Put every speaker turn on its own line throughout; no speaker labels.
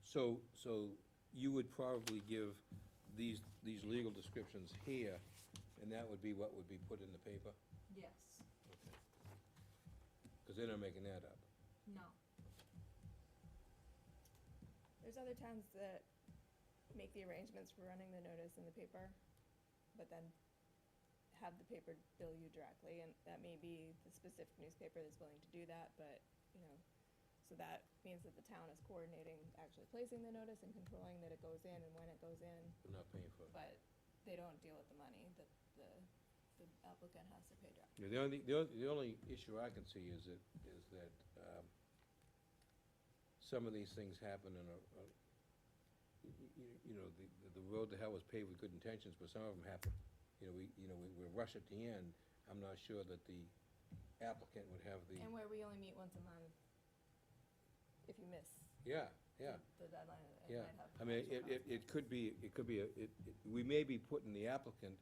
So, so you would probably give these, these legal descriptions here, and that would be what would be put in the paper?
Yes,
Because they're not making that up.
no.
There's other towns that make the arrangements for running the notice in the paper, but then have the paper bill you directly, and that may be the specific newspaper that's willing to do that, but, you know, so that means that the town is coordinating actually placing the notice and controlling that it goes in and when it goes in,
They're not paying for it.
but they don't deal with the money that the, the applicant has to pay direct.
Yeah, The only, the only, the only issue I can see is that, is that, um, some of these things happen in a, a, you, you know, the, the road to hell was paved with good intentions, but some of them happen. You know, we, you know, we, we rush at the end, I'm not sure that the applicant would have the,
And where we only meet once a month, if you miss
yeah, yeah.
the deadline, it
Yeah,
might have.
I mean,
financial
it, it,
consequences.
it could be, it could be, a- it, it- we may be putting the applicant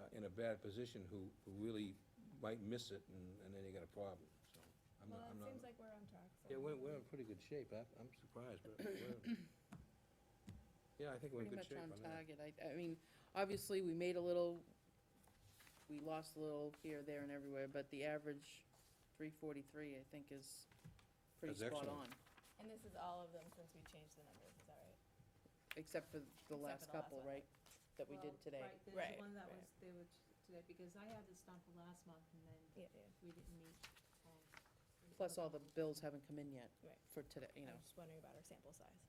uh, in a bad position who, who really might miss it, and, and then you got a problem, so. I'm not,
Well,
I'm
it
not.
seems like we're on track. so-
Yeah, we're, we're in pretty good shape, I, I'm surprised, but we're, yeah, I think we're in
Pretty
good shape
much
on
on
that.
target. I, I mean, obviously, we made a little, we lost a little here, there, and everywhere, but the average three forty-three, I think, is pretty
That's
spot
excellent.
on,
And this is all of them since we changed the numbers, is that right?
except for
for
the last
the last
couple,
one.
right? That we did
Well,
today.
Right, there's
Right,
the one that
right.
was, they were t- today, because I had this done for last month, and then
Yeah, yeah.
we didn't meet. um, we-
Plus, all the bills haven't come in yet
Right.
for today, you
I was
know.
just wondering about our sample size.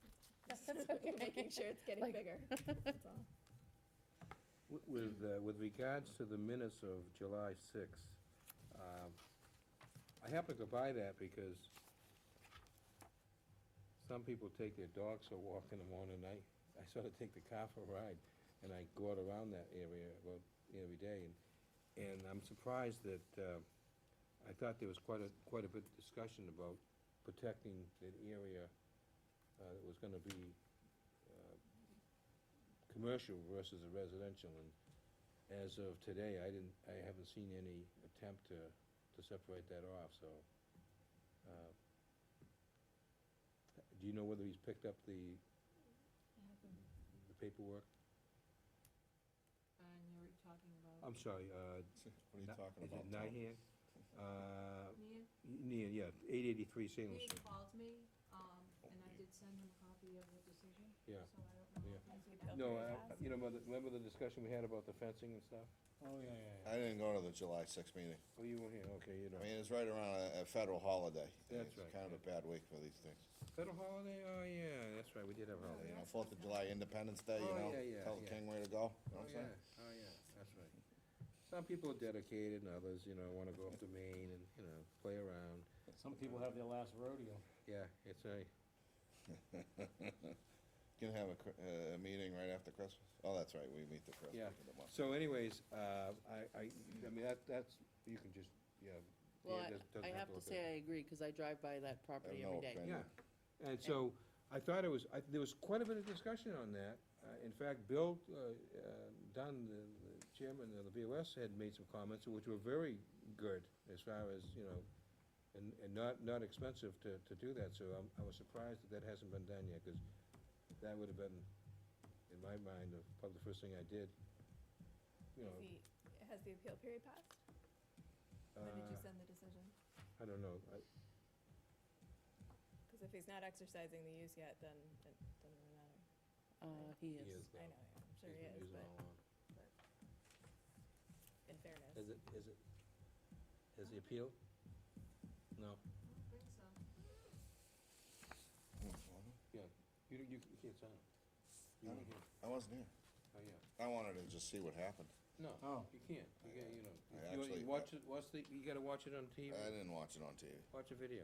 We're Making sure it's getting
Like-
bigger, that's all.
Wi- With, uh, with regards to the minutes of July sixth, um, I happen to go by that because some people take their dogs for a walk in the morning, and I, I sort of take the car for a ride, and I go out around that area about every day, and, and I'm surprised that, uh, I thought there was quite a, quite a bit of discussion about protecting that area, uh, that was gonna be, uh, commercial versus a residential, and as of today, I didn't, I haven't seen any attempt to, to separate that off, so. uh, Do you know whether he's picked up the, the paperwork?
And you were talking about
I'm sorry, uh.
What are you
Na-
talking
is
about?
it
Tom?
Nihan? Uh,
Nia.
Nian, yeah, eight eighty-three Salem
He
Street,
called me, um, and I did send him a copy of the decision, so
yeah.
I don't know.
Yeah.
if he's
You
in that-
built
No,
very
I-
fast.
you know, mother- remember the discussion we had about the fencing and stuff?
Oh, yeah, yeah, yeah.
I didn't go to the July sixth meeting.
Oh, you weren't here, okay, you know.
I mean, it's right around a, a federal holiday.
That's right,
It's kind of a bad week for these things.
Federal holiday, oh, yeah, that's right, we did have a holiday.
You know, Fourth of July, Independence Day, you
Oh,
know,
yeah, yeah,
tell the
yeah.
king where to go, you
Oh,
know what I'm saying?
yeah, oh, yeah, that's right. Some people are dedicated, and others, you know, wanna go up to Maine and, you know, play around.
Some people have their last rodeo.
Yeah, it's a,
Gonna have a, cr- uh, a meeting right after Christmas? Oh, that's right, we meet the first week
Yeah.
of the month.
so anyways, uh, I, I, I mean, that, that's, you can just, yeah. yeah,
Well, I-
doesn't- doesn't
I have to
look at
say I agree, because I drive by that
I have
property
no
every day.
opinion.
Yeah, and so, I thought it was, I, there was quite a bit of discussion on that. Uh, in fact, Bill, uh, uh, Dunn, the the chairman of the BOS, had made some comments which were very good as far as, you know, and, and not, not expensive to, to do that, so I'm, I was surprised that that hasn't been done yet, cause that would've been, in my mind, the- probably the first thing I did. You
Has
know,
the, has the appeal period passed? When did
uh,
you send the decision?
I don't know, I,
Because if he's not exercising the use yet, then it doesn't really matter.
Uh, he
he is
is.
I
now.
know, I'm sure
He's
he
been
is,
using
but
all along.
in fairness.
Is it, is it, has the appeal? No.
I don't think so.
Mm-hmm.
You, you you can't sign it. You
No.
weren't here.
I wasn't here.
Oh, yeah.
I wanted to just see what happened.
No,
Oh.
you can't. You gotta, you know, you-
I
you,
actually-
watch it, watch the, you gotta watch it on TV.
I didn't watch it on TV.
Watch a video.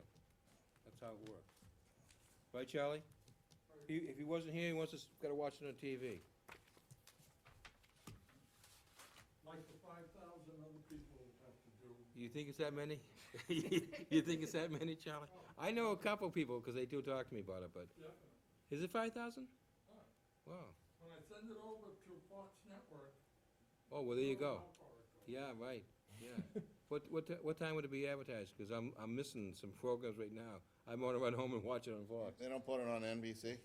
That's how it works. Right, Charlie? He, if he wasn't here, he wants us, gotta watch it on TV.
like the five thousand other people have to do.
You think it's that many? You think it's that many, Charlie? I know a couple people, cause they do talk to me about it, but,
Yep.
is it five thousand? Wow.
When I send it over to Fox Network.
Oh, well, there you go.
they'll know how far it goes.
Yeah, right, yeah. What, what, ti- what time would it be advertised? Cause I'm, I'm missing some programs right now. I'm gonna run home and watch it on Fox.
They don't put it on NBC?